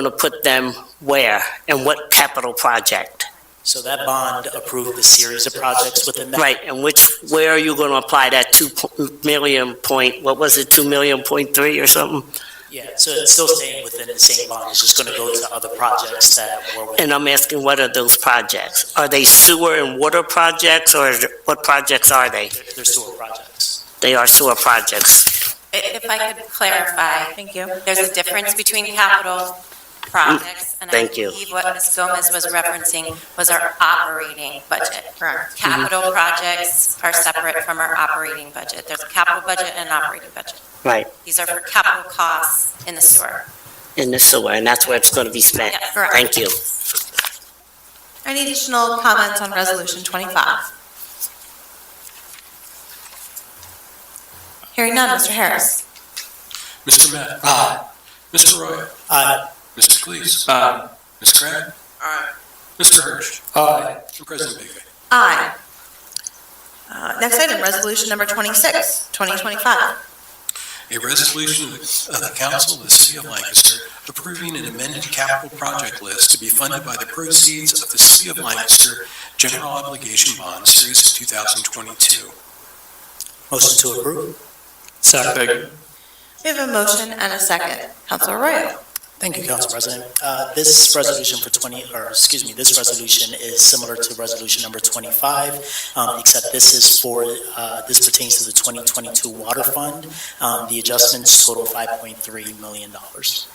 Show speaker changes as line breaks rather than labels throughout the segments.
going to put them where and what capital project?
So that bond approved a series of projects within that.
Right, and which, where are you going to apply that 2 million point, what was it, 2 million point three or something?
Yeah, so it's still staying within the same bond, it's just gonna go to other projects that were within.
And I'm asking, what are those projects? Are they sewer and water projects, or is it- what projects are they?
They're they're sewer projects.
They are sewer projects.
If if I could clarify. Thank you. There's a difference between capital projects. and
Thank you.
I believe what Ms. Gomez was referencing was our operating budget. Mm-hmm. Capital projects are separate from our operating budget. There's a capital budget and an operating budget.
Right.
These are for capital costs in the sewer.
In the sewer, and that's where it's going to be spent.
Yeah, correct.
Thank you.
Any additional comments on Resolution 25? Hearing none, Mr. Harris.
Mr. Matt. Aye. Mr. Roy.
Uh,
Mr. Cleese. Aye. Ms. Grant. Aye. Mr. Hirsch. Aye. And President Baker.
Aye. Uh, Next item, Resolution Number 26, 2025.
A resolution of the council of the city of Lancaster approving an amended capital project list to be funded by the proceeds of the city of Lancaster general obligation bond series of 2022.
motion to approve? Second.
We have a motion and a second. Councilor Royo.
Thank you, Council President. Uh, this resolution for twenty, or excuse me, this resolution is similar to resolution number twenty-five, um, except this is for, uh, this pertains to the twenty twenty-two water fund. Um, the adjustments total five point three million dollars.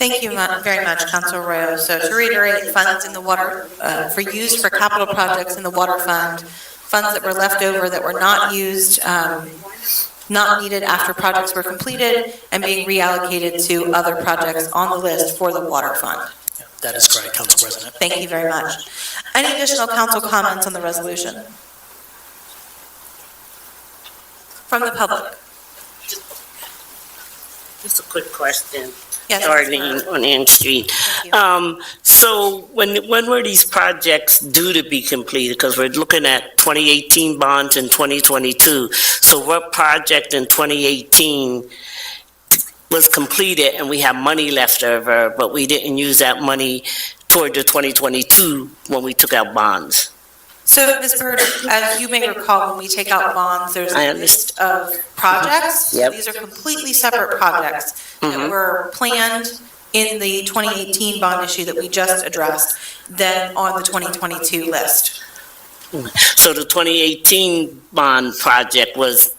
Thank you mu- very much, Councilor Royo. So to reiterate, funds in the water, uh, for use for capital projects in the water fund, funds that were left over that were not used, um, not needed after projects were completed, and being reallocated to other projects on the list for the water fund.
That is correct, Council President.
Thank you very much. Any additional council comments on the resolution? From the public?
Just a quick question.
Yes.
starting on Ann Street. Um, so when, when were these projects due to be completed? Because we're looking at 2018 bonds and 2022. So what project in 2018 was completed and we have money left over, but we didn't use that money toward the 2022 when we took out bonds?
So, Ms. Bird, as you may recall, when we take out bonds, there's
I
a
understand.
list of projects.
Yep.
These are completely separate projects that
Mm-hmm.
Mhm.
were planned in the 2018 bond issue that we just addressed, then on the 2022 list.
So the 2018 bond project was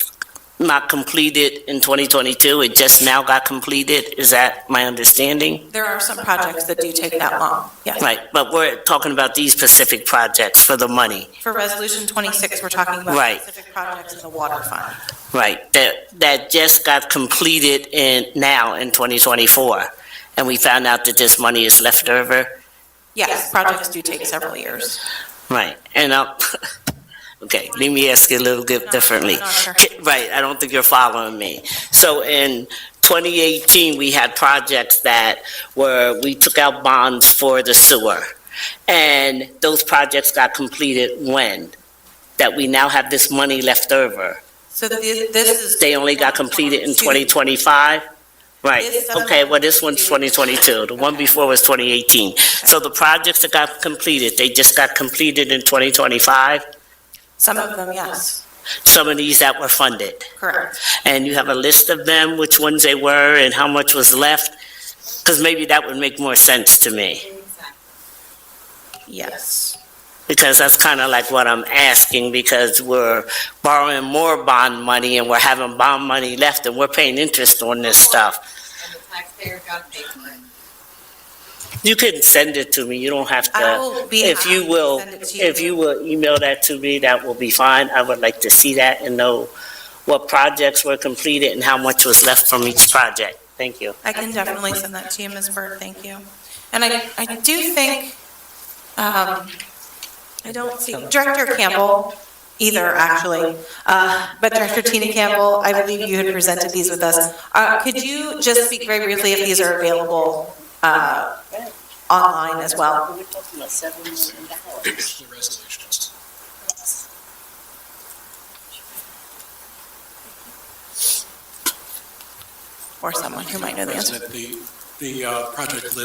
not completed in 2022, it just now got completed? Is that my understanding?
There are some projects that do take that long, yes.
Right, but we're talking about these specific projects for the money,
For Resolution 26, we're talking
Right.
about specific projects in the water fund.
right, that, that just got completed in, now in 2024, and we found out that this money is left over,
Yes, projects do take several years.
right, and I'll, okay, let me ask you a little bit differently.
Not sure.
Ki- Right, I don't think you're following me. So in 2018, we had projects that were, we took out bonds for the sewer, and those projects got completed when? That we now have this money left over.
So thi- this is.
They only got completed in 2025? Right,
This-
okay, well, this one's 2022, the one before was 2018. So the projects that got completed, they just got completed in 2025,
Some of them, yes,
some of these that were funded.
correct.
And you have a list of them, which ones they were and how much was left? Because maybe that would make more sense to me,
Yes.
because that's kind of like what I'm asking, because we're borrowing more bond money and we're having bond money left and we're paying interest on this stuff.
and the taxpayer got paid for it.
You can send it to me, you don't have to.
I will be
If
happy
you
to
will,
send it to
if you will email that to me, that will be fine. I would like to see that and know what projects were completed and how much was left from each project. Thank you.
I can definitely send that to you, Ms. Bird, thank you. And I, I do think, um, I don't see, Director Campbell either, actually. Uh, but Director Tina Campbell, I believe you had presented these with us. Uh, could you just speak very briefly if these are available, uh, online as well?
We're talking about seven million dollars.
The resolutions.
Or someone who might know the answer.
President, the the uh, project list